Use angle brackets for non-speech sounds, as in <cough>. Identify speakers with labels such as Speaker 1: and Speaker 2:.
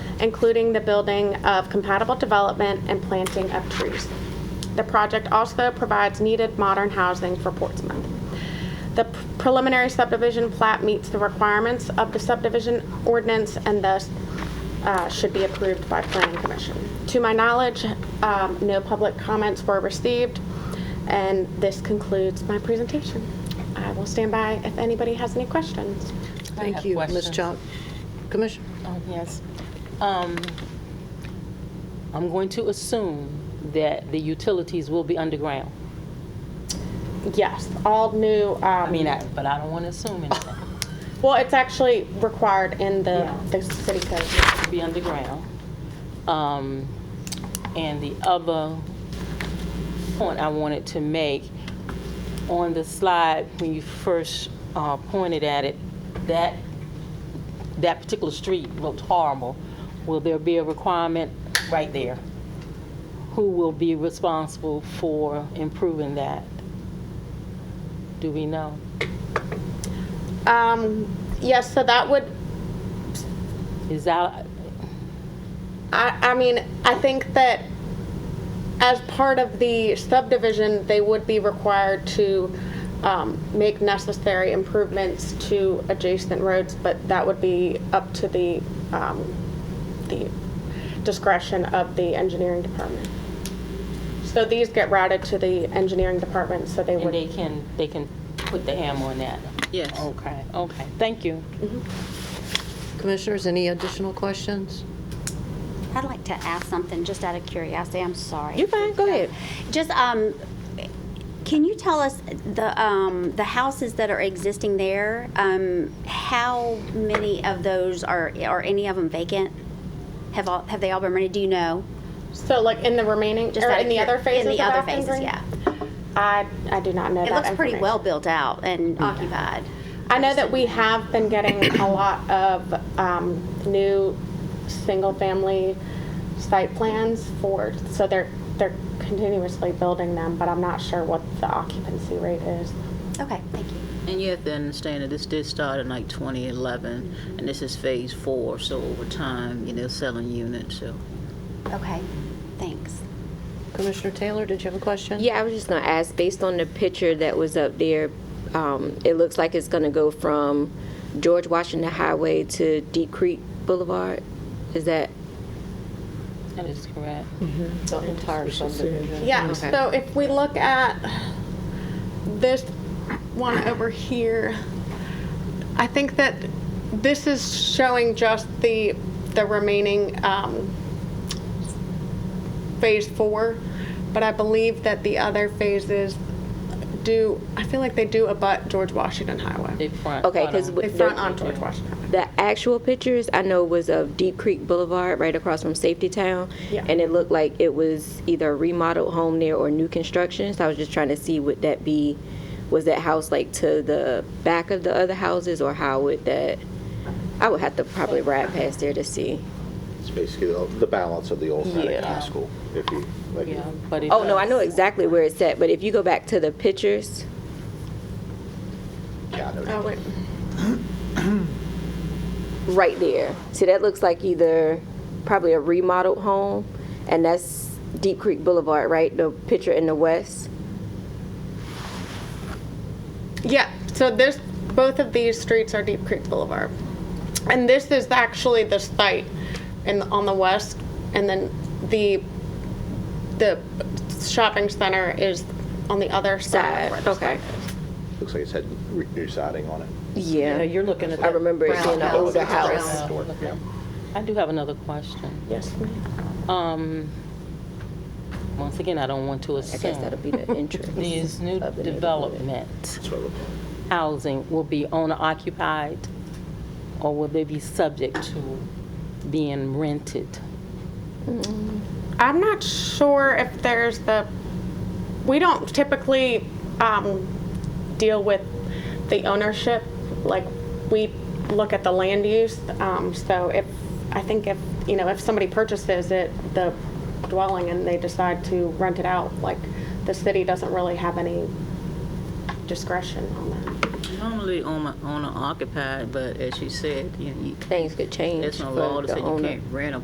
Speaker 1: including the building of compatible development and planting of trees. The project also provides needed modern housing for Portsmouth. The preliminary subdivision plat meets the requirements of the subdivision ordinance and thus uh, should be approved by planning commission. To my knowledge, um, no public comments were received, and this concludes my presentation. I will stand by if anybody has any questions.
Speaker 2: Thank
Speaker 3: have
Speaker 2: you, Ms.
Speaker 3: questions.
Speaker 2: Chalk. Commissioner?
Speaker 3: Oh, yes. Um, I'm going to assume that the utilities will be underground.
Speaker 1: Yes, all new,
Speaker 3: I mean,
Speaker 1: um,
Speaker 3: I- but I don't want to assume anything.
Speaker 1: well, it's actually required in the, the city code.
Speaker 3: To Be underground. Um, And the other point I wanted to make, on the slide, when you first uh, pointed at it, that, that particular street looked horrible. Will there be a requirement right there? Who will be responsible for improving that? Do we know?
Speaker 1: Um, Yes, so that would,
Speaker 3: Is that,
Speaker 1: I, I mean, I think that as part of the subdivision, they would be required to um, make necessary improvements to adjacent roads, but that would be up to the, um, the discretion of the engineering department. So these get routed to the engineering department, so they
Speaker 3: and
Speaker 1: would.
Speaker 3: they can, they can put the hammer on that?
Speaker 2: Yes.
Speaker 3: Okay, okay, thank you.
Speaker 2: Commissioners, any additional questions?
Speaker 4: I'd like to ask something, just out of curiosity, I'm sorry.
Speaker 1: You're fine, go ahead.
Speaker 4: Just, um, can you tell us the, um, the houses that are existing there, um, how many of those are, are any of them vacant? Have all, have they all been rented, do you know?
Speaker 1: So like in the remaining,
Speaker 4: Just
Speaker 1: or
Speaker 4: out of
Speaker 1: in the
Speaker 4: cur-
Speaker 1: other phases
Speaker 4: In
Speaker 1: of
Speaker 4: the other
Speaker 1: Afton
Speaker 4: phases,
Speaker 1: Green?
Speaker 4: yeah.
Speaker 1: I, I do not know that
Speaker 4: It looks pretty
Speaker 1: information.
Speaker 4: well built out and occupied.
Speaker 1: I know that we have been getting
Speaker 4: <coughs>
Speaker 1: a lot of um, new single-family site plans for, so they're, they're continuously building them, but I'm not sure what the occupancy rate is.
Speaker 4: Okay, thank you.
Speaker 5: And you have to understand that this did start in like 2011, and this is phase four, so over time, you know, selling units, so.
Speaker 4: Okay, thanks.
Speaker 2: Commissioner Taylor, did you have a question?
Speaker 6: Yeah, I was just gonna ask, based on the picture that was up there, um, it looks like it's gonna go from George Washington Highway to Deep Creek Boulevard? Is that?
Speaker 3: That is correct.
Speaker 2: The entire subdivision.
Speaker 1: Yeah,
Speaker 2: Okay.
Speaker 1: so if we look at this one over here, I think that this is showing just the, the remaining um, phase four, but I believe that the other phases do, I feel like they do abut George Washington
Speaker 3: They
Speaker 1: Highway.
Speaker 3: front.
Speaker 6: Okay, because
Speaker 1: They front on George Washington. Highway.
Speaker 6: the actual pictures I know was of Deep Creek Boulevard, right across from Safety Town.
Speaker 1: Yeah.
Speaker 6: And it looked like it was either a remodeled home there or new construction, so I was just trying to see would that be, was that house like to the back of the other houses, or how would that? I would have to probably ride past there to see.
Speaker 7: It's basically the- the balance of the old Natick
Speaker 3: Yeah.
Speaker 7: High School, if you, like,
Speaker 3: Yeah, but it
Speaker 6: Oh, no, I
Speaker 3: does-
Speaker 6: know exactly where it's at, but if you go back to the pictures,
Speaker 7: yeah, I know
Speaker 1: Oh,
Speaker 7: that.
Speaker 1: wait,
Speaker 6: right there. See, that looks like either probably a remodeled home, and that's Deep Creek Boulevard, right? The picture in the west.
Speaker 1: Yeah, so this, both of these streets are Deep Creek Boulevard. And this is actually the site in, on the west, and then the, the shopping center is on the other side.
Speaker 6: Side.
Speaker 1: where the
Speaker 6: Okay.
Speaker 7: looks like it's had re- new siding on it.
Speaker 2: Yeah,
Speaker 6: Yeah.
Speaker 2: you're looking at
Speaker 6: I
Speaker 2: that.
Speaker 6: remember it being an older house.
Speaker 7: Door, yeah.
Speaker 3: I do have another question.
Speaker 1: Yes, ma'am.
Speaker 3: Um, once again, I don't want to
Speaker 6: I guess that'll
Speaker 3: assume.
Speaker 6: be the entrance.
Speaker 3: These new
Speaker 6: Of the neighborhood.
Speaker 3: development
Speaker 7: That's what it looked like.
Speaker 3: housing will be owner occupied? Or will they be subject to being rented?
Speaker 1: I'm not sure if there's the, we don't typically um, deal with the ownership, like, we look at the land use, um, so if, I think if, you know, if somebody purchases it, the dwelling, and they decide to rent it out, like, the city doesn't really have any discretion on that.
Speaker 5: Normally owner owner occupied, but as you said, you know, you-
Speaker 6: Things could change
Speaker 5: there's no
Speaker 6: for
Speaker 5: law to
Speaker 6: the
Speaker 5: say you
Speaker 6: owner.
Speaker 5: can't rent a